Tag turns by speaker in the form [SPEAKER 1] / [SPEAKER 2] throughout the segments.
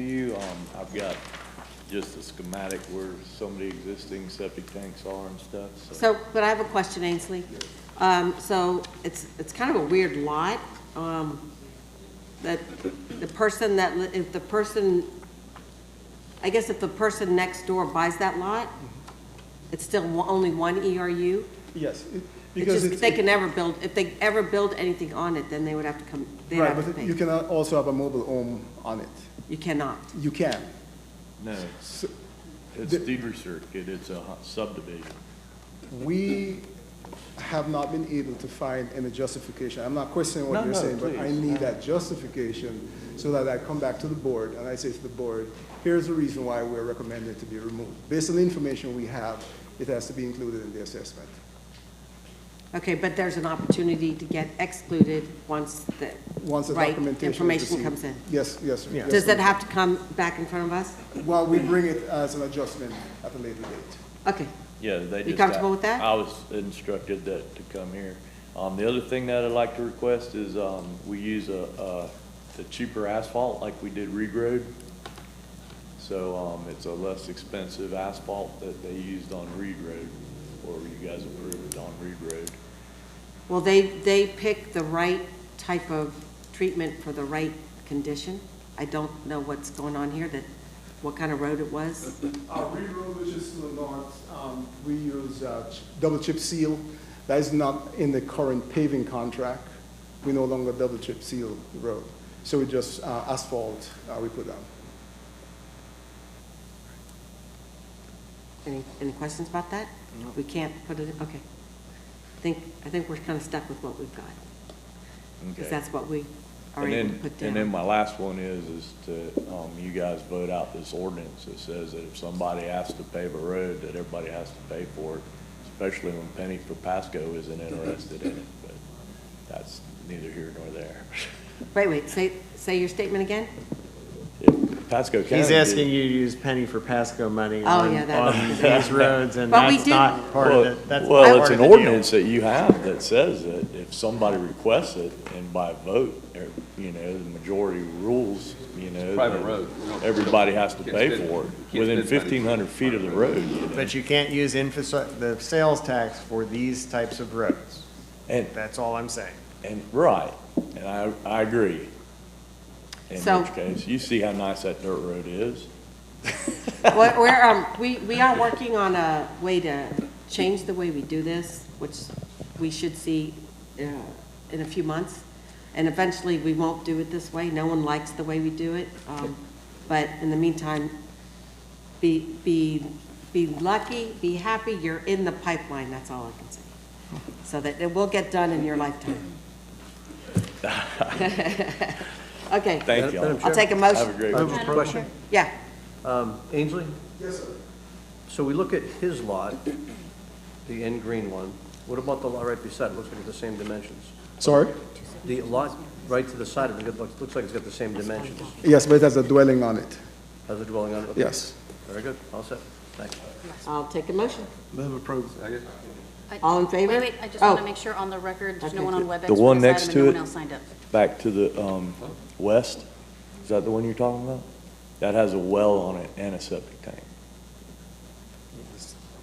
[SPEAKER 1] um, I've got just a schematic where some of the existing septic tanks are and stuff, so.
[SPEAKER 2] So, but I have a question, Ainsley. Um, so it's, it's kind of a weird lot, um, that the person that, li- if the person, I guess if the person next door buys that lot, it's still one- only one E ERU?
[SPEAKER 3] Yes, it-
[SPEAKER 2] It's
[SPEAKER 3] Mm-hmm. because
[SPEAKER 2] just-
[SPEAKER 3] it's.
[SPEAKER 2] They can never build, if they ever build anything on it, then they would have to come, they'd
[SPEAKER 3] Right,
[SPEAKER 2] have to
[SPEAKER 3] but you
[SPEAKER 2] pay.
[SPEAKER 3] can also have a mobile home on it.
[SPEAKER 2] You cannot.
[SPEAKER 3] You can.
[SPEAKER 1] No,
[SPEAKER 3] So
[SPEAKER 1] it's
[SPEAKER 3] The-
[SPEAKER 1] deeper circuit, it's a hu- subdivision.
[SPEAKER 3] We have not been able to find any justification. I'm not questioning
[SPEAKER 1] No,
[SPEAKER 3] what you're
[SPEAKER 1] no,
[SPEAKER 3] saying, but I
[SPEAKER 1] please,
[SPEAKER 3] need
[SPEAKER 1] no.
[SPEAKER 3] that justification so that I come back to the board and I say to the board, here's the reason why we're recommending it to be removed. Based on the information we have, it has to be included in the assessment.
[SPEAKER 2] Okay, but there's an opportunity to get excluded once the,
[SPEAKER 3] Once the
[SPEAKER 2] right,
[SPEAKER 3] documentation is
[SPEAKER 2] information
[SPEAKER 3] received-
[SPEAKER 2] comes in.
[SPEAKER 3] Yes, yes. yes,
[SPEAKER 2] Does that
[SPEAKER 3] ma'am.
[SPEAKER 2] have to come back in front of us?
[SPEAKER 3] Well, we bring it as an adjustment at a later date.
[SPEAKER 2] Okay,
[SPEAKER 1] Yeah, they just.
[SPEAKER 2] You comfortable with that?
[SPEAKER 1] I was instructed that, to come here. Um, the other thing that I'd like to request is, um, we use a, uh, the cheaper asphalt like we did Reed Road. So, um, it's a less expensive asphalt that they used on Reed Road, or you guys approved on Reed Road.
[SPEAKER 2] well, they, they pick the right type of treatment for the right condition. I don't know what's going on here, that, what kind of road it was.
[SPEAKER 3] Uh, Reed Road, which is to the north, um, we use, uh, ch- double chip seal. That is not in the current paving contract. We no longer double chip seal the road. So we just, uh, asphalt, uh, we put down.
[SPEAKER 2] Any, any questions about that? We can't put it, okay. I think, I think we're kind of stuck with what we've got,
[SPEAKER 1] Okay.
[SPEAKER 2] because that's what we are
[SPEAKER 1] And
[SPEAKER 2] able to
[SPEAKER 1] then,
[SPEAKER 2] put
[SPEAKER 1] and then
[SPEAKER 2] down.
[SPEAKER 1] my last one is, is to, um, you guys vote out this ordinance that says that if somebody has to pave a road, that everybody has to pay for it, especially when Penny Propasco isn't interested in it, but that's neither here nor there.
[SPEAKER 2] Wait, wait, say, say your statement again?
[SPEAKER 1] If Pasco County.
[SPEAKER 4] He's
[SPEAKER 1] did-
[SPEAKER 4] asking you to use penny for Pasco money
[SPEAKER 2] Oh,
[SPEAKER 4] on,
[SPEAKER 2] yeah, that's-
[SPEAKER 4] on these roads, and
[SPEAKER 2] But we
[SPEAKER 4] that's
[SPEAKER 2] do-
[SPEAKER 4] not part
[SPEAKER 1] Well,
[SPEAKER 4] of it. That's not
[SPEAKER 1] Well,
[SPEAKER 4] part
[SPEAKER 1] it's
[SPEAKER 4] of
[SPEAKER 1] an
[SPEAKER 4] the deal.
[SPEAKER 1] ordinance that you have that says that if somebody requests it and by vote, er, you know, the majority rules, you know.
[SPEAKER 5] private
[SPEAKER 1] that
[SPEAKER 5] road. We don't-
[SPEAKER 1] Everybody has to
[SPEAKER 5] Can't
[SPEAKER 1] pay
[SPEAKER 5] spend-
[SPEAKER 1] for
[SPEAKER 5] you
[SPEAKER 1] it,
[SPEAKER 5] can't
[SPEAKER 1] within
[SPEAKER 5] spend money.
[SPEAKER 1] fifteen hundred feet of the road, you know.
[SPEAKER 4] But you can't use infrastructure, the sales tax for these types of roads.
[SPEAKER 1] And,
[SPEAKER 4] That's all I'm saying.
[SPEAKER 1] and, right, and I, I agree.
[SPEAKER 2] So-
[SPEAKER 1] In which case, you see how nice that dirt road is.
[SPEAKER 2] Well, We're, um, we, we are working on a way to change the way we do this, which we should see, uh, in a few months. And eventually, we won't do it this way. No one likes the way we do it. Um, but in the meantime, be, be, be lucky, be happy, you're in the pipeline, that's all I can say. So that it will get done in your lifetime. Okay.
[SPEAKER 1] Thank you all.
[SPEAKER 6] Madam
[SPEAKER 2] I'll take a
[SPEAKER 1] Have a
[SPEAKER 2] motion.
[SPEAKER 1] great.
[SPEAKER 6] I have a question.
[SPEAKER 2] Yeah,
[SPEAKER 6] Um, Ainsley,
[SPEAKER 3] Yes, sir.
[SPEAKER 6] so we look at his lot, the end green one. What about the lot right beside it? Looks like it's the same dimensions.
[SPEAKER 3] Sorry?
[SPEAKER 6] The lot right to the side of it, it looks, looks like it's got the same dimensions
[SPEAKER 3] Yes, but it has a dwelling on it.
[SPEAKER 6] as a dwelling on it. Okay.
[SPEAKER 3] Yes.
[SPEAKER 6] Very good, all set, thanks.
[SPEAKER 2] I'll take a motion.
[SPEAKER 6] Move approval.
[SPEAKER 7] I-
[SPEAKER 2] All in favor?
[SPEAKER 7] Wait, wait, I just want
[SPEAKER 2] Oh.
[SPEAKER 7] to make sure on the record, there's no
[SPEAKER 2] Okay.
[SPEAKER 7] one on WebEx.
[SPEAKER 1] The
[SPEAKER 7] for
[SPEAKER 1] one
[SPEAKER 7] this
[SPEAKER 1] next
[SPEAKER 7] item
[SPEAKER 1] to
[SPEAKER 7] and
[SPEAKER 1] it?
[SPEAKER 7] No one else signed up.
[SPEAKER 1] Back to the, um, west, is that the one you're talking about? That has a well on it and a septic tank.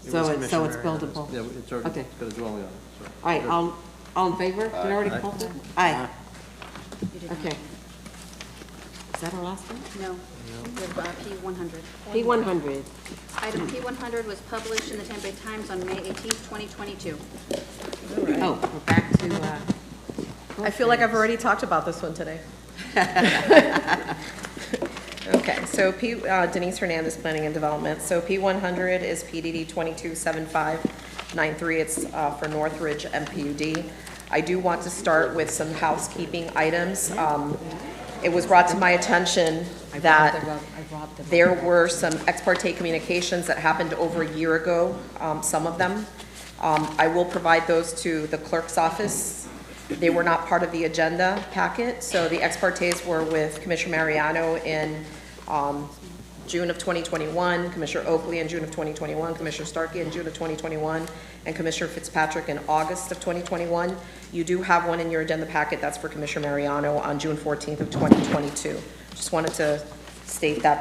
[SPEAKER 2] So it's, so it's buildable.
[SPEAKER 6] Yeah, it's already,
[SPEAKER 2] Okay.
[SPEAKER 6] it's got a dwelling on it, so.
[SPEAKER 2] All right, all, all in favor? Did I already call for it? Aye. Okay. Is that our last one?
[SPEAKER 7] No, with uh, P one hundred.
[SPEAKER 2] P one hundred.
[SPEAKER 7] Item P one hundred was published in the Tampa Bay Times on May eighteenth, twenty twenty-two.
[SPEAKER 2] Oh, we're back to, uh,
[SPEAKER 8] I feel like I've already talked about this one today. Okay, so P, uh, Denise Hernandez, Planning and Development. So P one hundred is PDD twenty-two seven five nine three. It's, uh, for Northridge MPUD. I do want to start with some housekeeping items. Um, it was brought to my attention that there were some ex parte communications that happened over a year ago, um, some of them. Um, I will provide those to the clerk's office. They were not part of the agenda packet, so the ex partes were with Commissioner Mariano in um, June of 2021, Commissioner Oakley in June of 2021, Commissioner Starkey in June of 2021, and Commissioner Fitzpatrick in August of 2021. You do have one in your agenda packet, that's for Commissioner Mariano on June 14th of 2022. Just wanted to state that